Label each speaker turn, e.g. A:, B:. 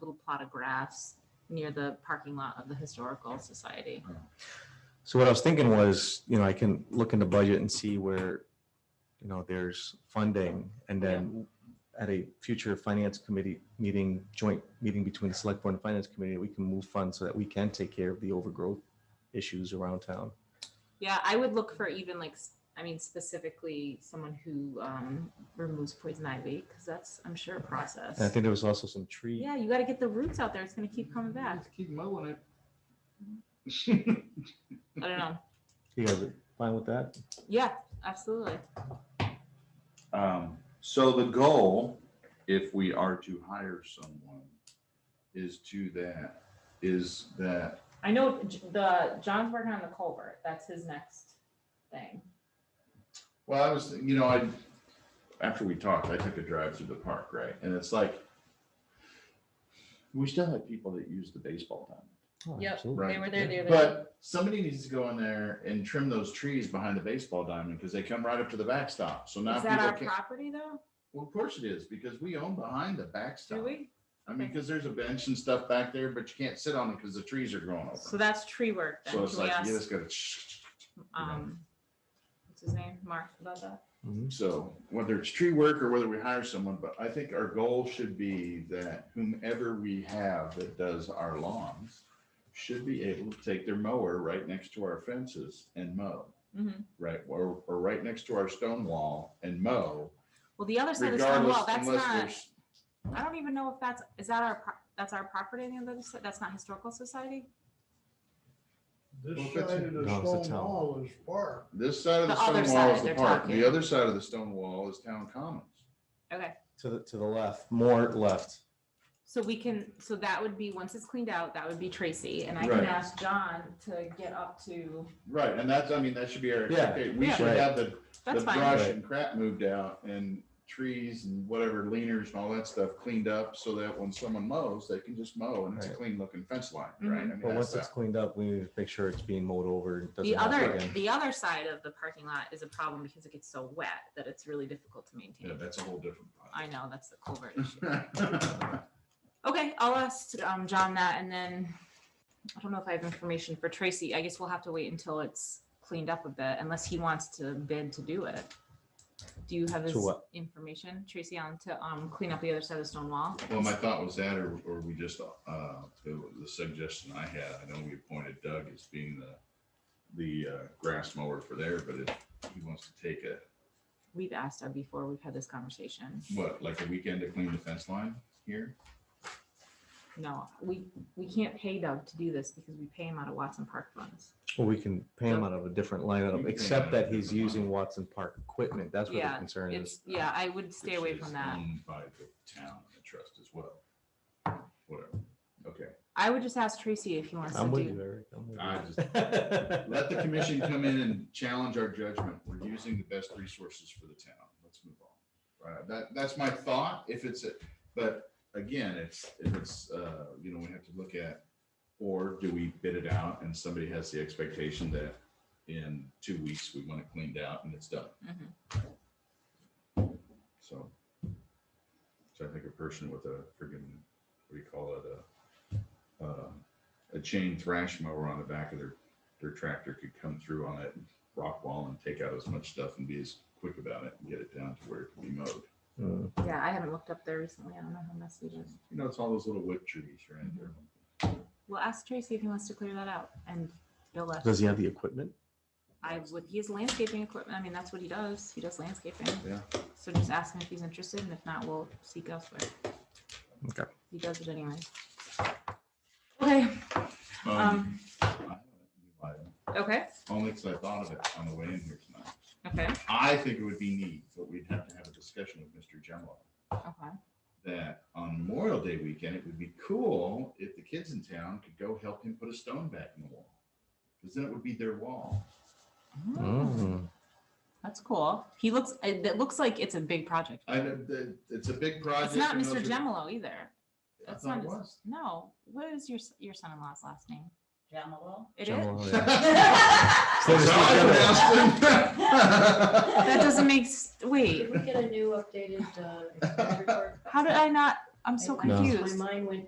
A: little plot of grass near the parking lot of the Historical Society.
B: So what I was thinking was, you know, I can look in the budget and see where, you know, there's funding and then at a future finance committee meeting, joint meeting between the select board and finance committee, we can move funds so that we can take care of the overgrowth issues around town.
A: Yeah, I would look for even like, s- I mean, specifically someone who um, removes poison ivy, because that's, I'm sure, a
B: And I
A: process.
B: think there was also some tree,
A: Yeah, you gotta get the roots out there. It's gonna keep coming back.
C: Just Keep mowing it.
A: I don't know.
B: you guys are fine with that?
A: Yeah, absolutely.
D: Um, so the goal, if we are to hire someone, is to that, is that,
A: I know J- the, John's working on the culvert. That's his next thing.
D: well, I was, you know, I, after we talked, I took a drive through the park, right? And it's like, we still have people that use the baseball diamond.
B: Oh,
A: Yep.
B: absolutely.
D: Right.
A: They were there the other day.
D: But somebody needs to go in there and trim those trees behind the baseball diamond because they come right up to the backstop. So now
A: Is that
D: people
A: our
D: can't.
A: property though?
D: Well, of course it is because we own behind the
A: Do
D: backstop.
A: we?
D: I mean, because there's a bench and stuff back there, but you can't sit on it because the trees are growing over.
A: So that's tree work then.
D: Oh. So it's
A: Can we
D: like, you
A: ask,
D: just gotta.
A: um, what's his name? Mark about that?
B: Mhm.
D: So whether it's tree work or whether we hire someone, but I think our goal should be that whomever we have that does our lawns should be able to take their mower right next to our fences and mow,
A: Mhm.
D: right? Or, or right next to our stone wall and mow
A: Well, the other side of the stone
D: regardless
A: wall, that's
D: unless
A: not,
D: there's,
A: I don't even know if that's, is that our, pro- that's our property on the other side? That's not historical society?
D: Well,
E: This
D: that's
E: side
D: it.
E: of the
B: No, it's the
E: stone
B: town.
E: wall is park.
D: this side of
A: The
D: the
A: other
D: stone wall
A: side
D: is the
A: they're
D: park. The
A: talking.
D: other side of the stone wall is town commons.
A: Okay.
B: To the, to the left, more left.
A: So we can, so that would be, once it's cleaned out, that would be Tracy, and I can
D: Right.
A: ask John to get up to,
D: Right, and that's, I mean, that should be our,
B: Yeah.
D: expectation. we
A: Yeah.
D: should
B: Right.
D: have the the
A: that's fine.
D: brush
B: Right.
D: and crap moved out and trees and whatever leaners and all that stuff cleaned up so that when someone mows, they can just mow and it's a
B: Right.
D: clean looking fence line, right? I
A: Mm-hmm.
D: mean,
B: But
D: that's
B: once it's
D: that.
B: cleaned up, we need to make sure it's being mowed over. and doesn't
A: The
B: happen
A: other,
B: again.
A: the other side of the parking lot is a problem because it gets so wet that it's really difficult to
D: Yeah,
A: maintain.
D: that's a whole different.
A: I know, that's the culvert issue.
D: problem.
A: Okay, I'll ask um John that, and then, I don't know if I have information for Tracy, I guess we'll have to wait until it's cleaned up a bit, unless he wants to bid to do it. Do you have
B: To
A: his
B: what?
A: information, Tracy, on to um clean up the other side of the stone wall?
D: Well, my thought was that, or, or we just, uh, the the suggestion I had, I know we appointed Doug as being the, the, uh, grass mower for there, but if he wants to take a,
A: We've asked her before, we've had this conversation.
D: what, like a weekend to clean the fence line here?
A: No, we, we can't pay Doug to do this because we pay him out of Watson Park funds.
B: Well, we can pay him out of a different line
D: You
B: item,
D: can
B: except
D: pay him
B: that
D: out of a
B: he's
D: different line
B: using Watson Park equipment. That's where
A: Yeah,
B: the concern
A: It's,
B: is.
A: yeah, I would stay
D: which
A: away
D: is
A: from that.
D: owned By the town and the trust as well. Whatever. Okay.
A: I would just ask Tracy if he wants to
B: I'm with you,
A: do.
B: Eric. I'm with
D: I
B: you.
D: just- Let the commission come in and challenge our judgment. We're using the best resources for the town. Let's move on. Uh, that, that's my thought. If it's, a but again, it's, if it's, uh, you know, we have to look at, or do we bid it out and somebody has the expectation that in two weeks, we want it cleaned out and it's done?
A: Mhm.
D: So. So I think a person with a friggin', what do you call it, a, uh, a chain thrash mower on the back of their, their tractor could come through on that rock wall and take out as much stuff and be as quick about it and get it down to where it can be mowed.
B: Mm.
A: Yeah, I haven't looked up there recently. I don't know how messy it is.
D: You know, it's all those little wood trees right there.
A: Well, ask Tracy if he wants to clear that out and Bill left.
B: Does he have the equipment?
A: I would, he has landscaping equipment. I mean, that's what he does. He does landscaping.
D: Yeah.
A: So just ask him if he's interested and if not, we'll seek elsewhere.
B: Okay.
A: He does it anyway. Okay, um,
D: I have a new item,
A: okay,
D: Only because I thought of it on the way in here tonight.
A: okay,
D: I think it would be neat, but we'd have to have a discussion with Mr. Gemlow.
A: okay.
D: that on Memorial Day weekend, it would be cool if the kids in town could go help him put a stone back in the wall. Because then it would be their wall.
A: Mm,
B: Mm.
A: That's cool. He looks, it it looks like it's a big project.
D: I, the- it's a big project.
A: It's not
D: and those
A: Mr.
D: are-
A: Gemolo either.
D: I
A: That's
D: thought
A: not,
D: it
A: his-
D: was.
A: no, what is your, s- your son-in-law's last name?
F: Jamalo.
A: It is?
B: Gemma, yeah.
A: That
B: So
D: That's
B: Mr.
D: how
B: Gemma-
D: I pronounced it.
A: doesn't make, s- wait,
F: Did we get a new updated, uh, report?
A: how did I not, I'm so
F: I- I-
A: confused.
F: My mind went